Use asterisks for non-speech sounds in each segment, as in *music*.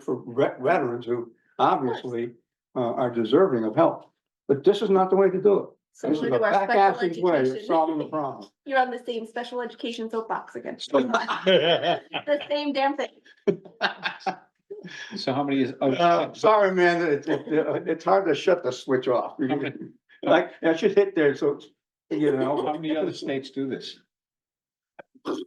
for vet- veterans who obviously uh, are deserving of help. But this is not the way to do it. So This is we're a to our back special ass way of solving *laughs* the *laughs* education. problem. You're on the same special education soapbox *laughs* again. The same damn thing. So how many is, oh, Uh, Sorry, man, it, it, it's hard to shut the switch off. *laughs* Like, I should hit there, so, you how *laughs* know, many other states do this?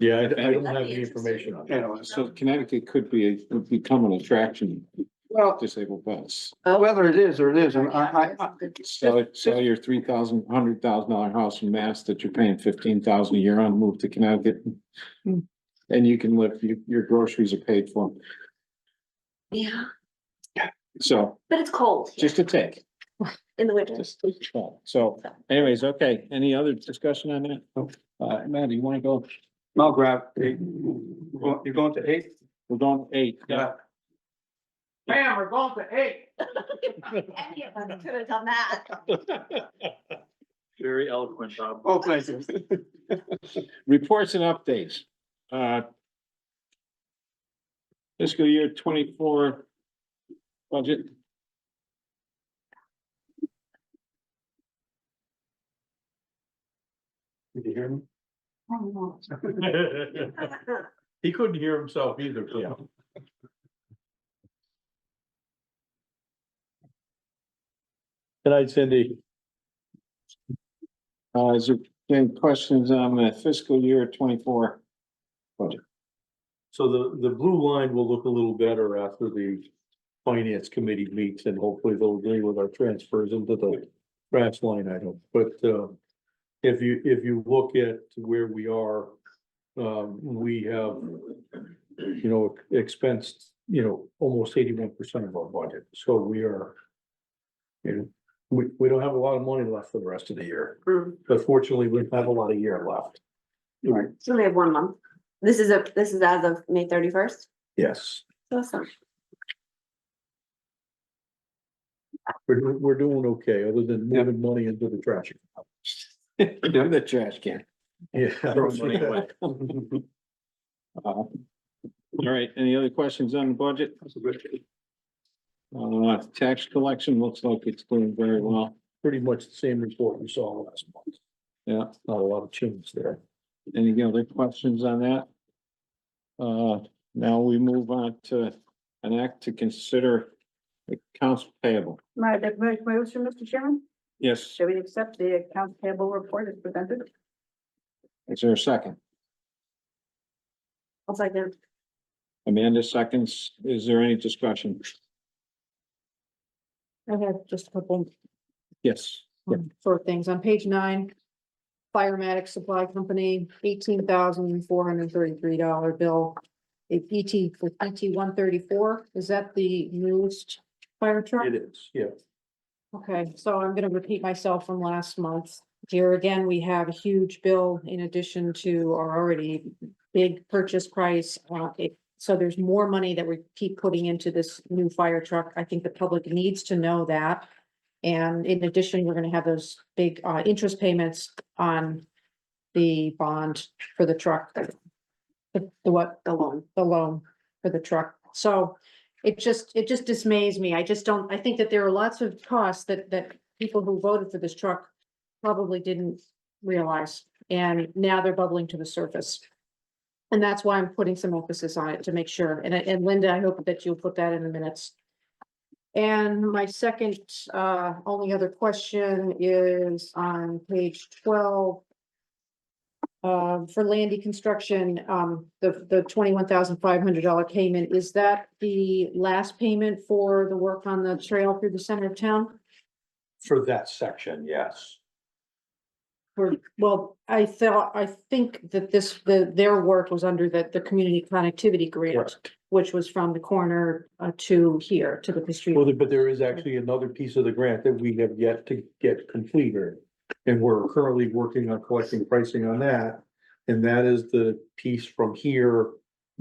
Yeah, I I don't That'd have be the information on you that. know, So Connecticut could be, a- would become an attraction well, for disabled vets. whether it is or it isn't, I, Yeah, I, I, that's good. Sell, it- sell your three thousand, hundred thousand dollar house in Mass that you're paying fifteen thousand a year on, move to Connecticut. Hmm. And you can live, you, your groceries are paid for. Yeah, So but it's cold here just a take, in the winter. *laughs* just a thought. So anyways, okay, any other discussion on that? Nope. Uh, Matt, do you wanna go? I'll grab eight. You're going to eight? We're going eight. Ma'am, we're going to eight. Any of us could have done that. *laughs* *laughs* Very eloquent, Bob. Oh, thank you. Reports and updates. Uh, Fiscal year twenty-four budget. Did you hear me? He couldn't hear himself either. Yeah. Good night, Cindy. Uh, is there any questions on the fiscal year twenty-four? So the, the blue line will look a little better after the finance committee meets and hopefully they'll agree with our transfers into the trash line item. But, um, if you, if you look at where we are, um, we have, you know, expensed, you know, almost eighty-one percent of our budget. So we are, you know, we, we don't have a lot of money left for the rest of the year. But fortunately, we have a lot of year left. Right, So we have one month. This is a, this is as of May thirty-first. Yes. Awesome. We're, doing- we're doing okay, other than Yeah. moving money into the trash. account. In the trash can. *laughs* Yeah. Throwing money away. Uh, All right, any other questions on the budget? that's a good. Uh, tax collection looks like it's doing very well. Pretty much the same report we saw last month. Yeah. Not a lot of change there. Any other questions on that? Uh, now we move on to an act to consider accounts payable. My the mo- motion, Mr. Chairman, Yes, should we accept the accounts payable report as presented? is there a second? I'll second. Amanda seconds. Is there any discussion? I have just a couple Yes. um, short things. On page nine, Firematic Supply Company, eighteen thousand four hundred thirty-three dollar bill. It's ET for ET one thirty-four. Is that the newest fire truck? It is, yeah. Okay, so I'm gonna repeat myself from last month. Here again, we have a huge bill in addition to our already big purchase price. Uh, it, so there's more money that we keep putting into this new fire truck. I think the public needs to know that. And in addition, we're gonna have those big, uh, interest payments on the bond for the truck. The, the what? The loan. the loan for the truck. So it just, it just dismays me. I just don't, I think that there are lots of costs that, that people who voted for this truck probably didn't realize, and now they're bubbling to the surface. And that's why I'm putting some emphasis on it to make sure. And, I- and Linda, I hope that you'll put that in the minutes. And my second, uh, only other question is on page twelve. Uh, for Landy Construction, um, the, the twenty-one thousand five hundred dollar payment, is that the last payment for the work on the trail through the center of town? For that section, yes. Or- Well, I thought, I think that this, the, their work was under the, the community connectivity grant, which was from the corner uh, to here, to the street. Well, but there is actually another piece of the grant that we have yet to get completed. And we're currently working on collecting pricing on that. And that is the piece from here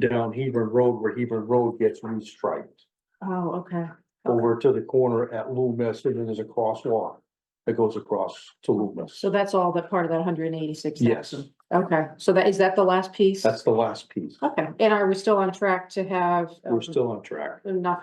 down Hebron Road where Hebron Road gets restriped. Oh, okay. over to the corner at Loomis, and then there's a crosswalk. that goes across to Loomis. So that's all that part of that hundred and eighty-six Yes, thousand? Okay, so that, is that the last piece? that's the last piece. Oh, Okay, and are we still on track to have? We're um, still on track. Enough